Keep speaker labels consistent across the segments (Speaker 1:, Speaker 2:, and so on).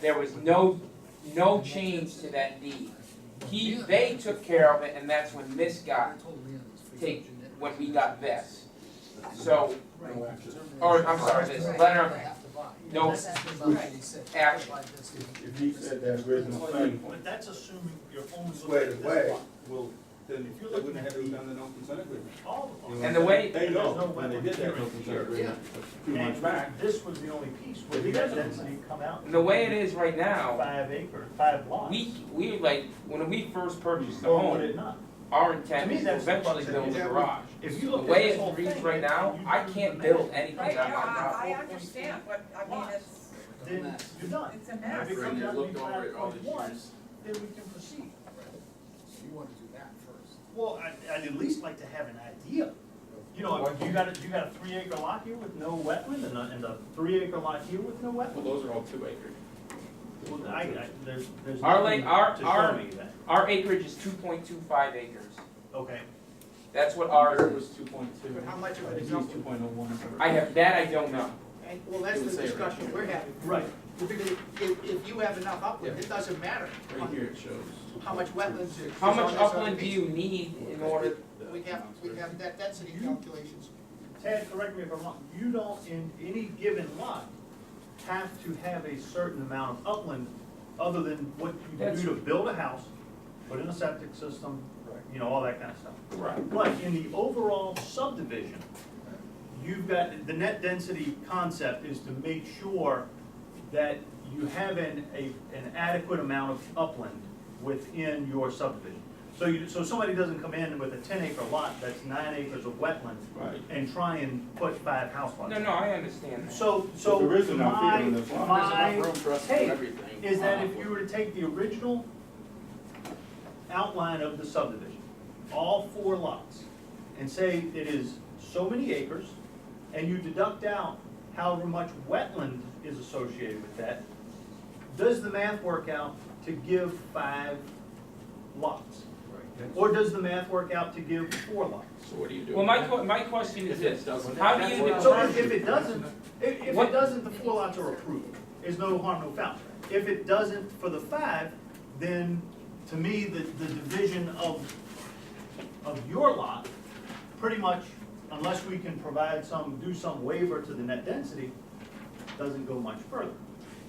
Speaker 1: There was no, no change to that deed. He, they took care of it, and that's when this got, take, when we got this. So, or, I'm sorry, this letter of no action.
Speaker 2: If he said that original thing
Speaker 3: But that's assuming your owner's looking
Speaker 2: squared
Speaker 3: at this
Speaker 2: away,
Speaker 3: lot,
Speaker 2: well, then
Speaker 3: If
Speaker 2: they
Speaker 3: you're
Speaker 2: wouldn't
Speaker 3: looking
Speaker 2: have
Speaker 3: at
Speaker 2: to
Speaker 3: the,
Speaker 2: done the no consent agreement. You
Speaker 3: all
Speaker 2: know
Speaker 3: of
Speaker 2: what
Speaker 3: them,
Speaker 1: And the way-
Speaker 2: I'm saying? They
Speaker 3: There's
Speaker 2: know,
Speaker 3: no
Speaker 2: when they did that no consent
Speaker 3: here.
Speaker 2: agreement a few months back.
Speaker 3: and this was the only piece where the density come out.
Speaker 1: And the way it is right now,
Speaker 3: Five acre, five lots.
Speaker 1: we, we like, when we first purchased the
Speaker 3: Or would
Speaker 1: home,
Speaker 3: it not?
Speaker 1: our
Speaker 3: To
Speaker 1: intent
Speaker 3: me,
Speaker 1: was to
Speaker 3: that's the
Speaker 1: eventually
Speaker 3: concept.
Speaker 1: build a
Speaker 3: Yeah,
Speaker 1: garage.
Speaker 3: If you
Speaker 1: The
Speaker 3: look at
Speaker 1: way
Speaker 3: this whole
Speaker 1: it
Speaker 3: thing.
Speaker 1: reads right now,
Speaker 3: you-
Speaker 1: I
Speaker 3: you-
Speaker 1: can't build anything
Speaker 4: Right,
Speaker 1: on
Speaker 4: no,
Speaker 1: my property.
Speaker 4: I, I understand, but, I mean, it's,
Speaker 3: Then you're done.
Speaker 4: it's a
Speaker 3: If
Speaker 4: mess.
Speaker 3: it comes out to be
Speaker 5: looked over it all
Speaker 3: five
Speaker 5: these
Speaker 3: point one,
Speaker 5: years.
Speaker 3: then we can proceed.
Speaker 6: You wanna do that first.
Speaker 3: Well, I, I'd at least like to have an idea. You know, if you got a, you got a three acre lot here with no wetland and a, and a three acre lot here with no
Speaker 5: Well,
Speaker 3: wetland.
Speaker 5: those are all two acre.
Speaker 3: Well, I, I, there's, there's
Speaker 1: Our
Speaker 3: nothing
Speaker 1: lake- our-
Speaker 3: to
Speaker 1: our-
Speaker 3: show me that.
Speaker 1: Our acreage is two point two five acres.
Speaker 3: Okay,
Speaker 1: That's what ours is.
Speaker 2: was two point two.
Speaker 7: But how much of
Speaker 2: I
Speaker 7: it
Speaker 2: think
Speaker 7: is
Speaker 2: he was
Speaker 7: open?
Speaker 2: two point oh one.
Speaker 1: I have, that I don't know.
Speaker 7: And, well, that's
Speaker 5: Didn't
Speaker 7: the
Speaker 5: say right
Speaker 7: discussion
Speaker 5: here.
Speaker 7: we're having.
Speaker 3: right.
Speaker 7: Because if, if you have enough upland, it doesn't matter
Speaker 5: Right here it shows.
Speaker 7: how much wetlands is.
Speaker 1: How
Speaker 7: is on
Speaker 1: much
Speaker 7: this other
Speaker 1: upland do
Speaker 7: piece.
Speaker 1: you need in order,
Speaker 7: We have, we have that density calculations.
Speaker 3: Ted, correct me if I'm wrong, you don't in any given lot have to have a certain amount of upland other than what you
Speaker 1: That's-
Speaker 3: do to build a house, put in a septic system, you know, all that kind of stuff.
Speaker 5: Right.
Speaker 3: But in the overall subdivision, you've got, the net density concept is to make sure that you have an, a, an adequate amount of upland within your subdivision. So you, so somebody doesn't come in with a ten acre lot that's nine acres of wetland
Speaker 2: Right.
Speaker 3: and try and put five house lots.
Speaker 1: no, no, I understand that.
Speaker 3: So, so
Speaker 2: There is enough here
Speaker 3: my,
Speaker 2: in this lot.
Speaker 5: There's enough
Speaker 3: my
Speaker 5: room for us to do
Speaker 3: take
Speaker 5: everything.
Speaker 3: is that if you were to take the original outline of the subdivision, all four lots, and say it is so many acres, and you deduct out however much wetland is associated with that, does the math work out to give five lots? Or does the math work out to give four lots?
Speaker 5: So what do you do?
Speaker 1: Well, my que- my question is
Speaker 5: If it
Speaker 1: this,
Speaker 5: doesn't.
Speaker 1: how do you
Speaker 3: So
Speaker 1: determine?
Speaker 3: if if it doesn't, if, if
Speaker 1: What-
Speaker 3: it doesn't, the four lots are approved, is no harm, no foul. If it doesn't for the five, then to me, the, the division of, of your lot, pretty much, unless we can provide some, do some waiver to the net density, doesn't go much further.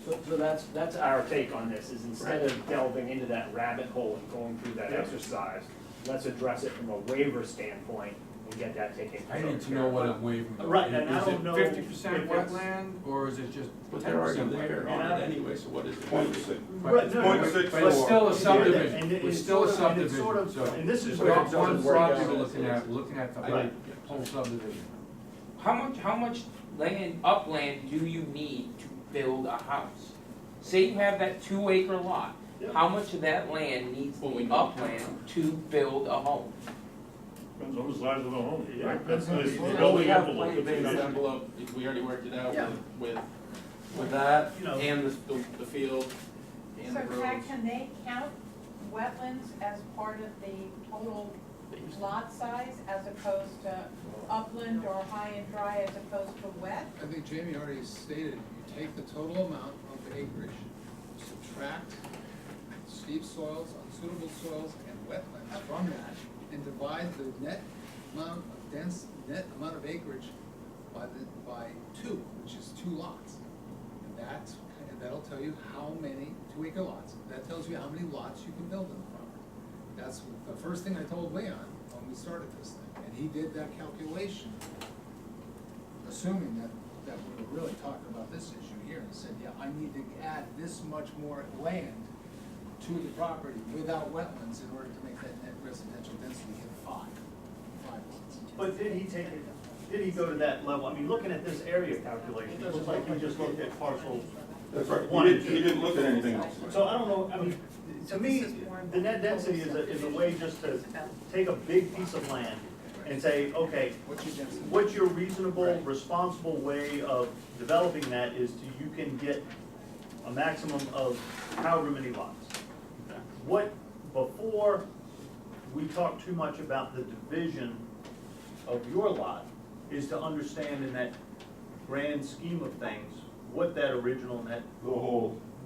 Speaker 8: So, so that's, that's our take on this, is instead of delving into that rabbit hole and going through that
Speaker 3: Yeah.
Speaker 8: exercise, let's address it from a waiver standpoint and get that taken care
Speaker 9: I
Speaker 8: of.
Speaker 9: need to know what I'm waiving.
Speaker 3: Right, and I don't know.
Speaker 9: Is it fifty percent
Speaker 3: if it's-
Speaker 9: wetland, or is it just
Speaker 5: But
Speaker 9: ten
Speaker 5: they're already
Speaker 9: percent
Speaker 5: there
Speaker 9: wetland?
Speaker 5: on it anyway, so what is the
Speaker 2: Point six.
Speaker 3: Right, no,
Speaker 2: Point
Speaker 3: no,
Speaker 2: six
Speaker 9: But it's
Speaker 2: four.
Speaker 9: still a
Speaker 3: And it-
Speaker 9: subdivision, it's
Speaker 3: it's
Speaker 9: still a
Speaker 3: sort of- and it's
Speaker 9: subdivision,
Speaker 3: sort of-
Speaker 9: so.
Speaker 3: And this is
Speaker 9: It's
Speaker 3: where.
Speaker 9: not
Speaker 3: it
Speaker 9: one
Speaker 3: doesn't work
Speaker 9: property
Speaker 3: out.
Speaker 9: we're looking at, we're looking at the whole,
Speaker 3: Right.
Speaker 9: whole subdivision.
Speaker 1: How much, how much land, upland do you need to build a house? Say you have that two acre lot,
Speaker 3: Yeah.
Speaker 1: how much of that land needs
Speaker 5: Well, we
Speaker 1: the
Speaker 5: know.
Speaker 1: upland to build a home?
Speaker 10: Depends on the size of the home.
Speaker 3: Yeah.
Speaker 10: That's the the
Speaker 5: Well,
Speaker 10: building
Speaker 5: we have
Speaker 10: envelope.
Speaker 5: plan based
Speaker 10: It's-
Speaker 5: envelope, if we already worked it out
Speaker 3: Yeah.
Speaker 5: with, with, with that,
Speaker 3: You know.
Speaker 5: and the, the- the field, and
Speaker 4: So
Speaker 5: the
Speaker 4: Jack,
Speaker 5: roads.
Speaker 4: can they count wetlands as part of the total lot size as opposed to upland or high and dry as opposed to wet?
Speaker 6: I think Jamie already stated, you take the total amount of acreage, subtract steep soils, unsuitable soils, and wetlands from that, and divide the net amount of dense, net amount of acreage by the, by two, which is two lots. And that's, and that'll tell you how many two acre lots, that tells you how many lots you can build on the property. That's the first thing I told Leon when we started this thing, and he did that calculation assuming that, that we were really talking about this issue here, and said, yeah, I need to add this much more land to the property without wetlands in order to make that net residential density hit five, five lots.
Speaker 3: But did he take it, did he go to that level? I mean, looking at this area calculation, it looks like he just looked at parcel.
Speaker 2: That's right,
Speaker 3: One.
Speaker 2: he didn't, he didn't look at anything else.
Speaker 3: So I don't know, I mean, to me, the net density is a, is a way just to take a big piece of land and say, okay,
Speaker 6: What's your density?
Speaker 3: what's your reasonable, responsible way of developing that is to, you can get a maximum of however many lots. What, before, we talked too much about the division of your lot, is to understand in that grand scheme of things, what that original net
Speaker 2: The whole,